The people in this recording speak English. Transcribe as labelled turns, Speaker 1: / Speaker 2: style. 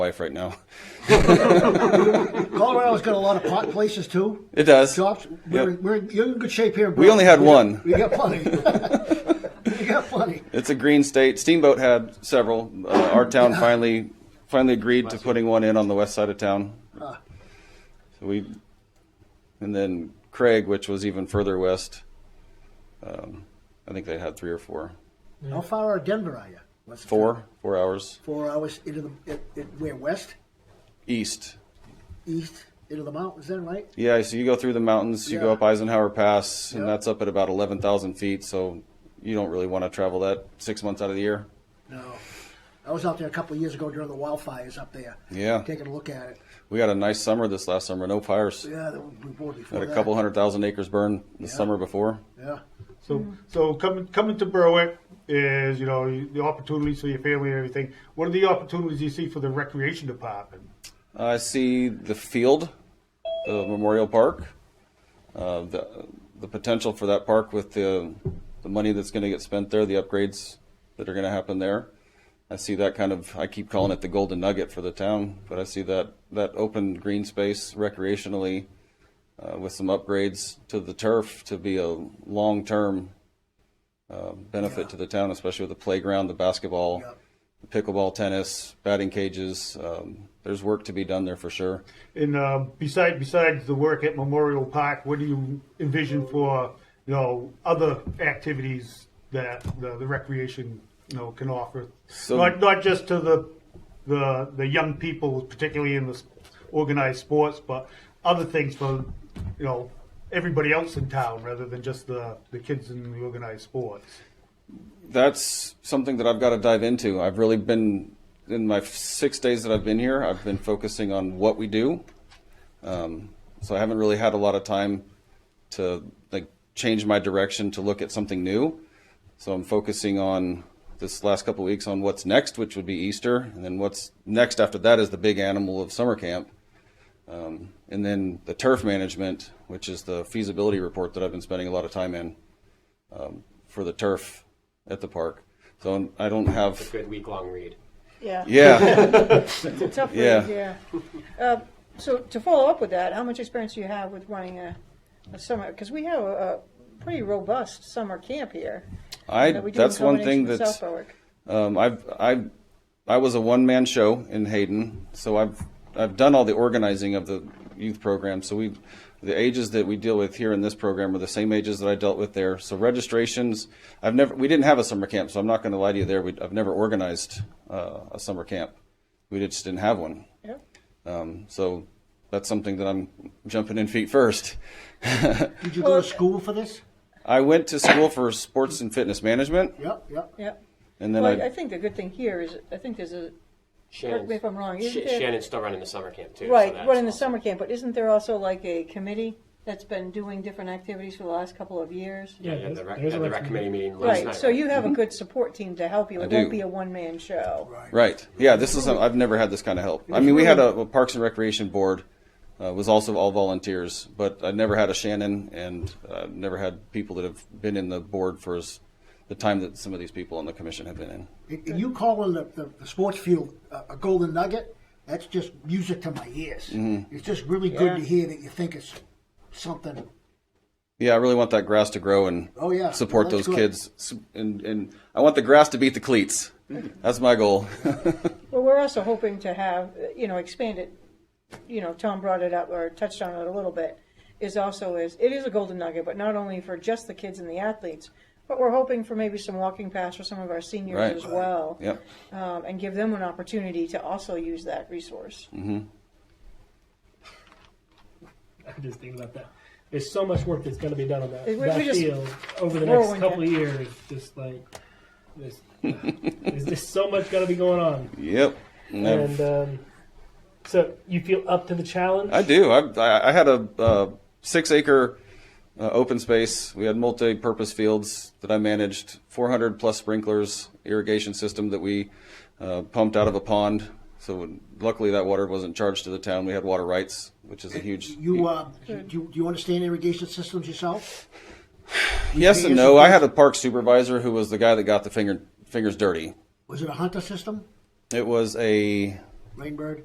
Speaker 1: life right now.
Speaker 2: Colorado's got a lot of pot places too.
Speaker 1: It does.
Speaker 2: Shops. We're,
Speaker 1: Yep.
Speaker 2: we're in, you're in good shape here. in
Speaker 1: We only had
Speaker 2: Brooklyn.
Speaker 1: one.
Speaker 2: We got, we got plenty. we got plenty.
Speaker 1: It's a green state. Steamboat had several. Uh, our town finally finally agreed to putting one in on the west side of town. So
Speaker 2: Ah.
Speaker 1: we, and then Craig, which was even further west. Um, I think they had three or four,
Speaker 2: How far out of Denver are you? What's the time?
Speaker 1: four, four hours
Speaker 2: Four hours into the. It, it, we're west,
Speaker 1: east.
Speaker 2: east, into the mountains. Then right.
Speaker 1: Yeah, so you go through the mountains, you go
Speaker 2: Yeah.
Speaker 1: up Eisenhower Pass, and
Speaker 2: Yeah.
Speaker 1: that's up at about eleven thousand feet. So you don't really want to travel that six months out of the year.
Speaker 2: No. I was out there a couple of years ago during the wildfires up there.
Speaker 1: Yeah.
Speaker 2: Taking a look at it.
Speaker 1: We had a nice summer this last summer. No fires.
Speaker 2: Yeah, that was before before
Speaker 1: Had a
Speaker 2: that.
Speaker 1: couple hundred thousand acres burned the summer before.
Speaker 2: Yeah.
Speaker 3: So, so coming coming to Berwick is you know you- the opportunities for your family and everything. What are the opportunities you see for the recreation department?
Speaker 1: I see the field, the Memorial Park, uh, the the potential for that park with the the money that's going to get spent there, the upgrades that are going to happen there. I see that kind of. I keep calling it the golden nugget for the town, but I see that that open green space recreationally, uh, with some upgrades to the turf to be a long term uh, benefit to the town, especially with the playground, the basketball
Speaker 2: Yep.
Speaker 1: pickleball, tennis, batting cages. Um, there's work to be done there for sure.
Speaker 3: And uh, beside besides the work at Memorial Park, what do you envision for you know other activities that the, the recreation you know can offer?
Speaker 1: So-
Speaker 3: not not just to the the the young people, particularly in the s- organized sports, but other things for you know everybody else in town rather than just the the kids in the organized sports.
Speaker 1: That's something that I've got to dive into. I've really been in my six days that I've been here. I've been focusing on what we do, um, so I haven't really had a lot of time to like change my direction to look at something new. So I'm focusing on this last couple weeks on what's next, which would be Easter, and then what's next after that is the big animal of summer camp. Um, and then the turf management, which is the feasibility report that I've been spending a lot of time in um, for the turf at the park. So I don't have.
Speaker 4: good week long read.
Speaker 5: Yeah,
Speaker 1: Yeah,
Speaker 5: it's a tough
Speaker 1: Yeah.
Speaker 5: read, yeah. Uh, So to follow up with that, how much experience do you have with running a, a summer, because we have a a pretty robust summer camp here.
Speaker 1: I.
Speaker 5: that we do in
Speaker 1: That's one thing
Speaker 5: combination with
Speaker 1: that's.
Speaker 5: South Berwick.
Speaker 1: Um, I've I, I was a one man show in Hayden, so I've I've done all the organizing of the youth program. So we, the ages that we deal with here in this program are the same ages that I dealt with there. So registrations, I've never we didn't have a summer camp, so I'm not going to lie to you there. We, I've never organized uh, a summer camp. We just didn't have one.
Speaker 5: Yeah.
Speaker 1: Um, so that's something that I'm jumping in feet first.
Speaker 2: Did you go to school for this?
Speaker 1: I went to school for sports and fitness management,
Speaker 2: Yep, yep.
Speaker 5: Yeah.
Speaker 1: and then
Speaker 5: Well, I-
Speaker 1: I,
Speaker 5: I think the good thing here is, I think there's a,
Speaker 4: Shannon's,
Speaker 5: me if I'm wrong,
Speaker 4: Sh-
Speaker 5: isn't there-
Speaker 4: Shannon's still running the summer camp too. so
Speaker 5: right,
Speaker 4: that's
Speaker 5: running the
Speaker 4: awesome.
Speaker 5: summer camp, but isn't there also like a committee that's been doing different activities for the last couple of years?
Speaker 4: Yeah,
Speaker 6: there's-
Speaker 4: the rec,
Speaker 6: there's a
Speaker 4: had the rec
Speaker 6: recommend-
Speaker 4: committee meeting last
Speaker 5: Right,
Speaker 4: night.
Speaker 5: so you have a good support team to help you. It
Speaker 1: I
Speaker 5: won't
Speaker 1: do.
Speaker 5: be a one-man show.
Speaker 1: Right. Yeah, this is, I've never had this kind of help. I mean, we had a, a Parks and Recreation Board, uh, was also all volunteers, but I never had a Shannon and uh, never had people that have been in the board for as, the time that some of these people on the commission have been in.
Speaker 2: And- and you calling the, the, the sports field a, a golden nugget? That's just music to my ears. It's just really good to hear that you think it's something.
Speaker 1: Yeah, I really want that grass to grow and
Speaker 2: Oh, yeah.
Speaker 1: support those
Speaker 2: That's good.
Speaker 1: kids. S- And, and I want the grass to beat the cleats. That's my goal.
Speaker 5: Well, we're also hoping to have, uh, you know, expand it, you know, Tom brought it up or touched on it a little bit, is also is, it is a golden nugget, but not only for just the kids and the athletes, but we're hoping for maybe some walking paths for some of our seniors
Speaker 1: Right.
Speaker 5: as well.
Speaker 1: Yep.
Speaker 5: Um, and give them an opportunity to also use that resource.
Speaker 6: I'm just thinking about that. There's so much work that's going to be done on that,
Speaker 5: We- we
Speaker 6: that
Speaker 5: just-
Speaker 6: field over the
Speaker 5: Whirlwind.
Speaker 6: next couple of years. Just like there's, there's just so much going to be going on,
Speaker 1: Yep. And I've-
Speaker 6: and um, so you feel up to the challenge.
Speaker 1: I do. I- I, I had a uh, six acre uh, open space. We had multi purpose fields that I managed, 400 plus sprinklers, irrigation system that we uh, pumped out of a pond. So luckily that water wasn't charged to the town. We had water rights, which is a huge.
Speaker 2: You, uh, do, you, do you understand irrigation systems yourself?
Speaker 1: yes and no. I had a park supervisor who was the guy that got the finger, fingers dirty.
Speaker 2: Was it a hunter system?
Speaker 1: It was a
Speaker 2: Rainbird.